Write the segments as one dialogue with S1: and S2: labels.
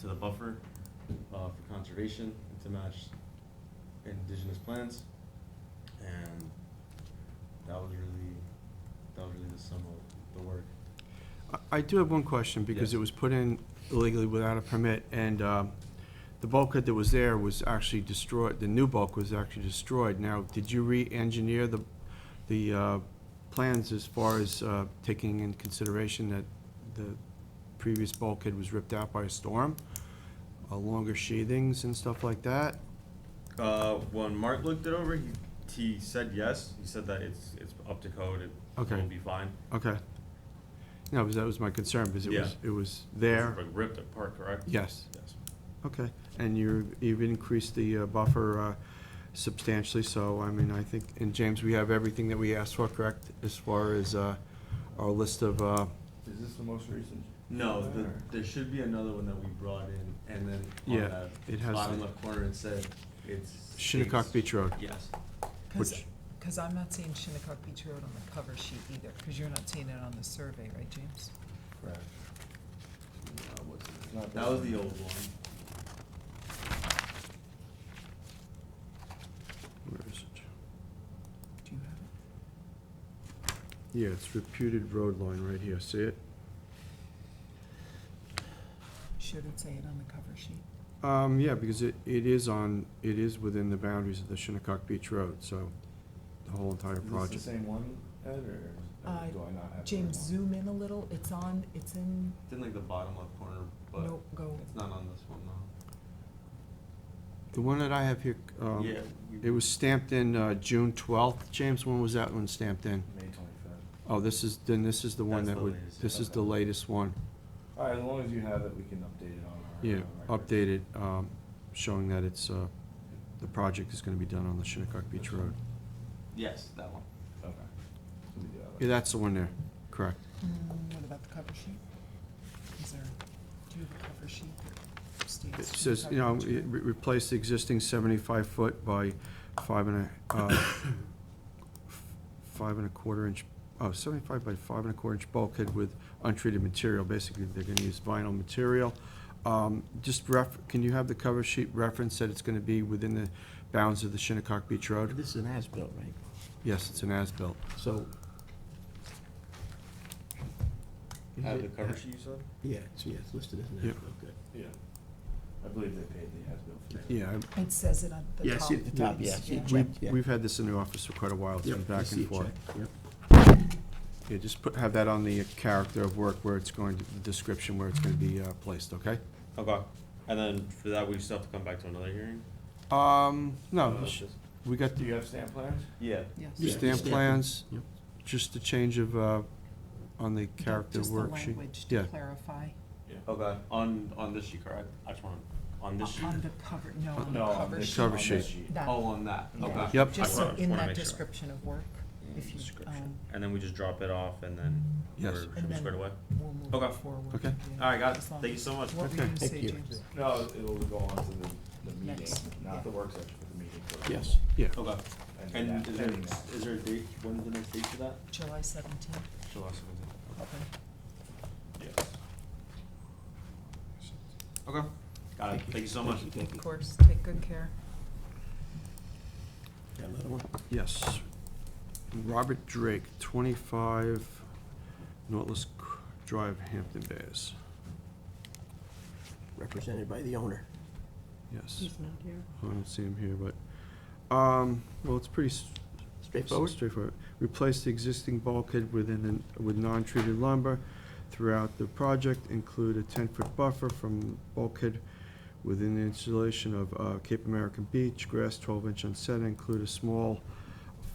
S1: to the buffer, uh, for conservation and to match indigenous plants. And that was really, that was really the sum of the work.
S2: I- I do have one question, because
S1: Yes.
S2: it was put in illegally without a permit, and um, the bulkhead that was there was actually destroyed, the new bulk was actually destroyed. Now, did you re-engineer the, the uh, plans as far as uh, taking in consideration that the previous bulkhead was ripped out by a storm? Uh, Longer sheathings and stuff like that?
S1: Uh, when Mark looked it over, he, he said yes, he said that it's, it's up to code, it
S2: Okay.
S1: will be fine.
S2: Okay. No, because that was my concern, because it was, it was there.
S1: Like Ripped apart, correct?
S2: Yes.
S1: Yes.
S2: Okay, and you're, you've increased the uh, buffer uh, substantially, so, I mean, I think, and James, we have everything that we asked for, correct? As far as uh, our list of, uh,
S3: Is this the most recent?
S1: No, the,
S3: Or-
S1: there should be another one that we brought in, and then
S2: Yeah,
S1: on the
S2: it has
S1: bottom
S2: the-
S1: left corner, it said it's.
S2: Shinnecock
S1: states-
S2: Beach Road.
S1: Yes.
S2: Which-
S4: Because I'm not seeing Shinnecock Beach Road on the cover sheet either, because you're not seeing it on the survey, right, James?
S3: Correct.
S1: No, it wasn't.
S3: It's not
S1: That
S3: this
S1: was
S3: one.
S1: the old one.
S2: Where is it?
S4: Do you have
S2: Yeah, it's reputed road line right here, see it?
S4: it? Should it say it on the cover sheet?
S2: Um, yeah, because it, it is on, it is within the boundaries of the Shinnecock Beach Road, so the whole entire
S3: Is this
S2: project.
S3: the same one, Ed, or is-
S4: Uh,
S3: or do I not have? the
S4: James,
S3: right one?
S4: zoom in a little, it's on, it's in,
S1: It's in like the bottom left corner, but
S4: no, go,
S1: it's not on this one though.
S2: The one that I have here, um,
S1: Yeah. we-
S2: it was stamped in uh, June twelfth. James, when was that one stamped in?
S3: May twenty-fifth.
S2: Oh, this is, then this is the one
S1: That's
S2: that
S1: the
S2: would,
S1: latest,
S2: this is the
S3: okay.
S2: latest one.
S3: All right, as long as you have it, we can update it on our.
S2: Yeah,
S3: our records.
S2: updated, um, showing that it's, uh, the project is gonna be done on the Shinnecock Beach Road.
S1: Yes, that one.
S3: Okay. So we do have it.
S2: Yeah, that's the one there, correct.
S4: Mm, what about the cover sheet? Is there, do you have a cover sheet that states?
S2: It says,
S4: Shinnecock
S2: you know,
S4: Beach
S2: it
S4: Road?
S2: re- replace the existing seventy-five foot by five and a, uh, five and a quarter inch, oh, seventy-five by five and a quarter inch bulkhead with untreated material, basically, they're gonna use vinyl material. Um, just ref, can you have the cover sheet reference that it's gonna be within the bounds of the Shinnecock Beach Road?
S5: This is an as-built, right?
S2: Yes, it's an as-built.
S5: So,
S1: Have the cover sheet you said?
S5: yeah, it's, yeah, it's listed as an
S2: Yeah.
S5: as-built, good.
S3: Yeah. I believe they paid the as-built for that.
S2: Yeah, I-
S4: It says it on the top.
S5: Yeah, I see it at the top, yeah, I
S4: yes.
S5: see it
S2: we,
S5: checked, yeah.
S2: we've had this in the office for quite a while, it's
S5: Yep,
S2: been
S5: I
S2: back
S5: see
S2: and
S5: it
S2: forth.
S5: checked, yep.
S2: Yeah, just put, have that on the character of work where it's going, to the description where it's gonna be, uh, placed, okay?
S1: Okay, and then for that, we still have to come back to another hearing?
S2: Um, no,
S5: Oh,
S1: Uh,
S2: we sh-
S1: just-
S2: we got
S3: Do
S2: the
S3: you have stamp plans?
S1: Yeah,
S5: Yeah,
S2: stamp
S5: stamp it.
S2: plans,
S5: Yep.
S2: just the change of, uh, on the character
S4: Just the
S2: work sheet.
S4: language
S2: Yeah,
S4: to clarify.
S3: Oh,
S1: okay, on, on this sheet, correct? I just want, on this sheet?
S4: On the cover, no, on the
S3: No, on
S4: cover
S3: this,
S4: sheet.
S2: Cover
S3: on this
S2: sheet.
S3: sheet.
S4: That-
S1: Oh, on that,
S4: yeah.
S1: okay.
S2: Yep.
S1: I
S4: Just so
S1: just
S4: in
S1: wanna
S4: that
S1: make sure.
S4: description of work, if you, um,
S1: And then we just drop it off and then
S2: Yes.
S1: we're-
S4: And
S1: we're
S4: then-
S1: squared away?
S4: um, we'll move
S1: Okay.
S4: it forward.
S2: Okay.
S4: yeah,
S1: Alright, guys,
S4: as long
S1: thank you
S4: as-
S1: so much.
S4: What were you
S2: Okay.
S4: gonna
S5: Thank
S4: say,
S5: you.
S4: James?
S3: No, it'll go on to the, the meeting,
S4: Next, yeah.
S3: not the work section, but the meeting. for-
S5: Yes. Oh.
S2: yeah,
S1: Okay,
S3: And
S1: and
S3: then that-
S1: is there,
S3: and that.
S1: is there a date, when is the next date for that?
S4: July seventeenth,
S1: July seventeenth.
S4: okay.
S3: Yes.
S1: Okay. Got it, thank you so much.
S5: Thank
S4: Of
S5: you.
S4: course, take good care.
S5: Got another one?
S2: yes. Robert Drake, twenty-five Nautilus C- Drive, Hampton Bays,
S5: Represented by the owner.
S2: yes.
S5: He's not here.
S2: I don't see him here, but, um, well, it's pretty s-
S5: Straightforward?
S2: Straightforward. Replace the existing bulkhead within, the- with non-treated lumber throughout the project, include a ten-foot buffer from bulkhead within the installation of uh, Cape American Beach, grass twelve-inch unset, include a small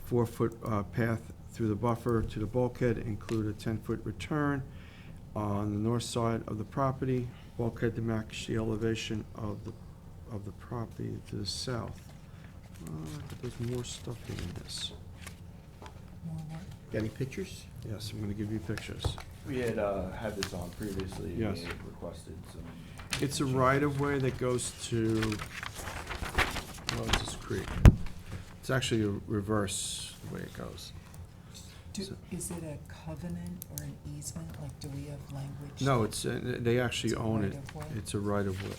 S2: four-foot uh, path through the buffer to the bulkhead, include a ten-foot return on the north side of the property, bulkhead to match the elevation of the, of the property to the south. Uh, but There's more stuff in this.
S4: More work.
S5: Got any pictures?
S2: Yes, I'm gonna give you pictures.
S3: We had, uh, had this on previously. and
S2: Yes.
S3: We had requested some.
S2: It's a right-of-way that goes to oh, Moses Creek. It's actually a reverse the way it goes.
S4: Do,
S2: So-
S4: is it a covenant or an easement? Like, do we have language?
S2: No,
S4: that
S2: it's, uh, they actually
S4: it's a
S2: own it.
S4: right of way?
S2: It's a right of way.